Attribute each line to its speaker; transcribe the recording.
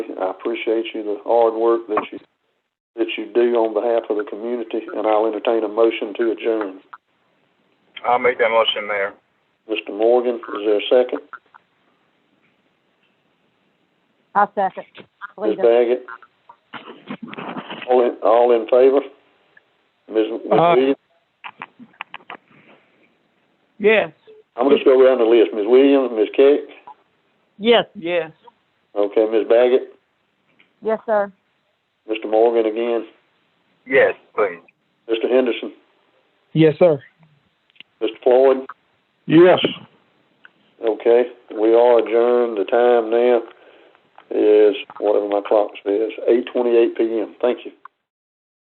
Speaker 1: I appreciate you, the hard work that you, that you do on behalf of the community, and I'll entertain a motion to adjourn.
Speaker 2: I'll make that motion, Mayor.
Speaker 1: Mr. Morgan, is there a second?
Speaker 3: I'll second.
Speaker 1: Ms.
Speaker 3: Leader.
Speaker 1: Baggett? All in, all in favor? Ms. Ms.
Speaker 4: Aye.
Speaker 1: Williams?
Speaker 4: Yes,
Speaker 1: I'm gonna just go around the list. Ms. Williams, Ms. Keck?
Speaker 4: yes, yes,
Speaker 1: Okay, Ms. Baggett?
Speaker 3: Yes, sir.
Speaker 1: Mr. Morgan again?
Speaker 2: Yes, please.
Speaker 1: Mr. Henderson?
Speaker 5: Yes, sir.
Speaker 1: Mr. Floyd?
Speaker 5: Yes.
Speaker 1: Okay, we are adjourned. The time now is, whatever my clock says, eight twenty-eight PM. Thank you.